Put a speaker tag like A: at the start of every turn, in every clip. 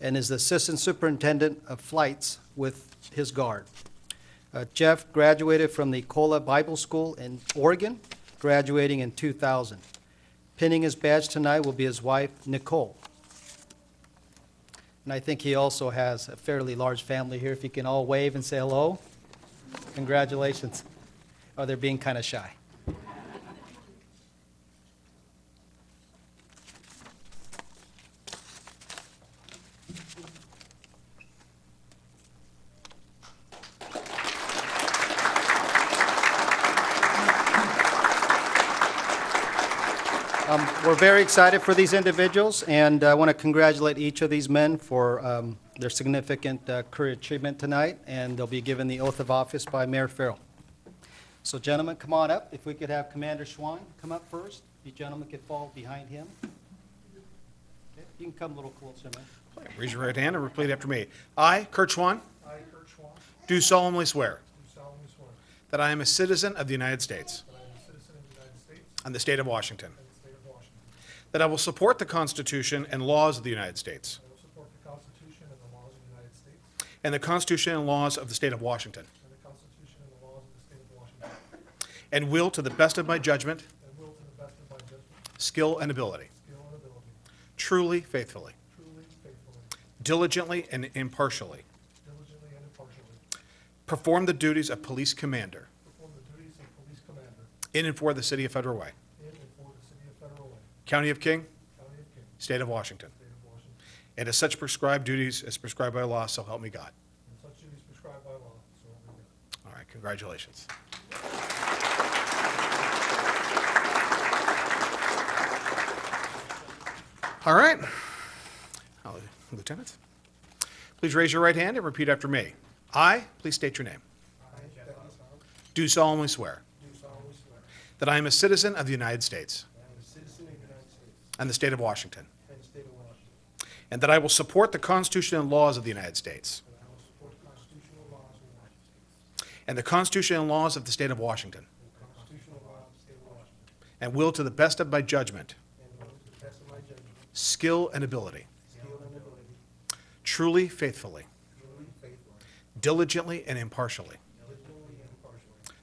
A: and is the Assistant Superintendent of Flights with his guard. Uh, Jeff graduated from the Cola Bible School in Oregon, graduating in 2000. Pinning his badge tonight will be his wife, Nicole. And I think he also has a fairly large family here. If you can all wave and say hello, congratulations. Oh, they're being kind of shy. Um, We're very excited for these individuals, and I want to congratulate each of these men for um, their significant uh, career achievement tonight, and they'll be given the oath of office by Mayor Farrell. So gentlemen, come on up. If we could have Commander Schwan come up first. You gentlemen could fall behind him. Okay, You can come a little closer, man.
B: Raise your right hand and repeat after me. I, Kurt Schwan,
C: I, Kurt Schwan, do
B: do solemnly swear
C: solemnly swear that
B: that I am a citizen of the United States
C: I am a citizen of the United States
B: and the state of Washington,
C: and the state of Washington,
B: that I will support the Constitution and laws of the United States
C: I will support the Constitution and the laws of the United States
B: and the Constitution and laws of the state of Washington,
C: and the Constitution and the laws of the state of Washington,
B: and will, to the best of my judgment,
C: and will to the best of my judgment,
B: skill, and ability,
C: skill, and ability,
B: truly, faithfully,
C: truly, faithfully,
B: diligently, and impartially,
C: diligently, and impartially,
B: perform the duties of police commander
C: perform the duties of police commander
B: in and for the city of Federal Way,
C: in and for the city of Federal Way,
B: county of King,
C: county of King,
B: state of Washington,
C: state of Washington,
B: and as such prescribed duties as prescribed by law, so help me God.
C: and such duties prescribed by law, so help me God.
B: All right, congratulations. All right. Hello, Lieutenant, please raise your right hand and repeat after me. I, please state your name,
C: I, Dennis Howard,
B: do solemnly swear
C: do solemnly swear
B: that I am a citizen of the United States
C: that I am a citizen of the United States
B: and the state of Washington,
C: and the state of Washington,
B: and that I will support the Constitution and laws of the United States
C: and I will support the constitutional laws of the United States
B: and the Constitution and laws of the state of Washington,
C: and the constitutional laws of the state of Washington,
B: and will, to the best of my judgment,
C: And will to the best of my judgment,
B: skill, and ability,
C: skill and ability,
B: truly, faithfully,
C: truly faithfully,
B: diligently, and impartially,
C: diligently, and impartially,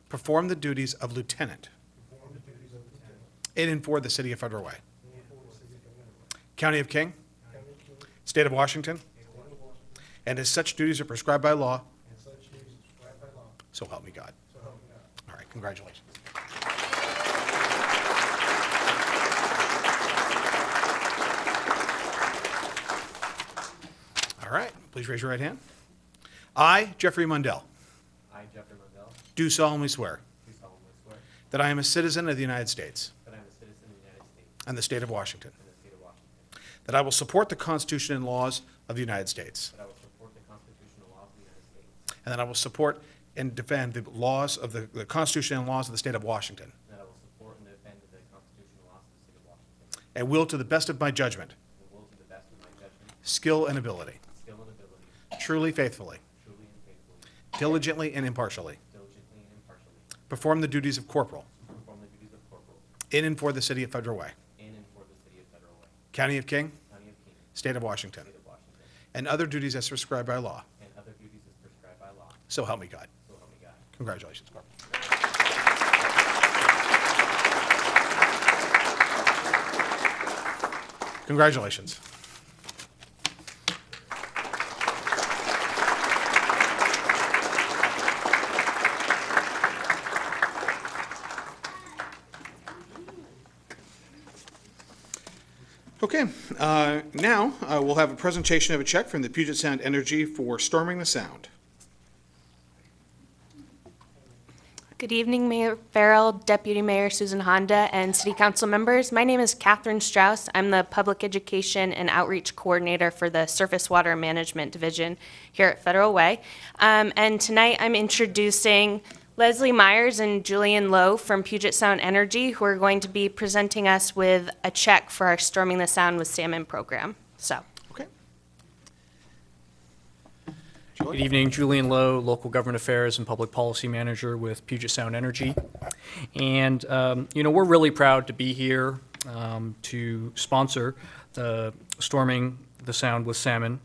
B: Perform the duties of lieutenant
C: perform the duties of lieutenant
B: in and for the city of Federal Way,
C: in and for the city of Illinois,
B: county of King,
C: county of Kings,
B: state of Washington,
C: state of Washington,
B: and as such duties are prescribed by law,
C: and such duties as prescribed by law,
B: so help me God.
C: so help me God.
B: All right, congratulations. All right, please raise your right hand. I, Jeffrey Mundell,
D: I, Jeffrey Mundell,
B: do solemnly swear
D: do solemnly swear
B: that I am a citizen of the United States
D: that I am a citizen of the United States
B: and the state of Washington,
D: and the state of Washington,
B: that I will support the Constitution and laws of the United States,
D: that I will support the constitutional laws of the United States,
B: And that I will support and defend the laws of the the Constitution and laws of the state of Washington.
D: and that I will support and defend the constitutional laws of the state of Washington,
B: And will, to the best of my judgment,
D: and will to the best of my judgment,
B: skill, and ability,
D: skill, and ability,
B: truly, faithfully,
D: truly and faithfully,
B: diligently, and impartially,
D: diligently and impartially,
B: perform the duties of corporal
D: perform the duties of corporal
B: in and for the city of Federal Way,
D: in and for the city of Federal Way,
B: county of King,
D: county of King,
B: state of Washington,
D: state of Washington,
B: and other duties as prescribed by law.
D: and other duties as prescribed by law,
B: So help me God.
D: so help me God.
B: Congratulations, Corporal. Congratulations. Okay, uh, now uh, we'll have a presentation of a check from the Puget Sound Energy for storming the Sound.
E: Good evening, Mayor Farrell, Deputy Mayor Susan Honda, and City Council members. My name is Catherine Strauss. I'm the Public Education and Outreach Coordinator for the Surface Water Management Division here at Federal Way. Um, And tonight, I'm introducing Leslie Myers and Julian Lowe from Puget Sound Energy, who are going to be presenting us with a check for our Storming the Sound with Salmon program. So,
B: Okay.
F: Good evening, Julian Lowe, Local Government Affairs and Public Policy Manager with Puget Sound Energy. And, um, you know, we're really proud to be here um, to sponsor the Storming the Sound with Salmon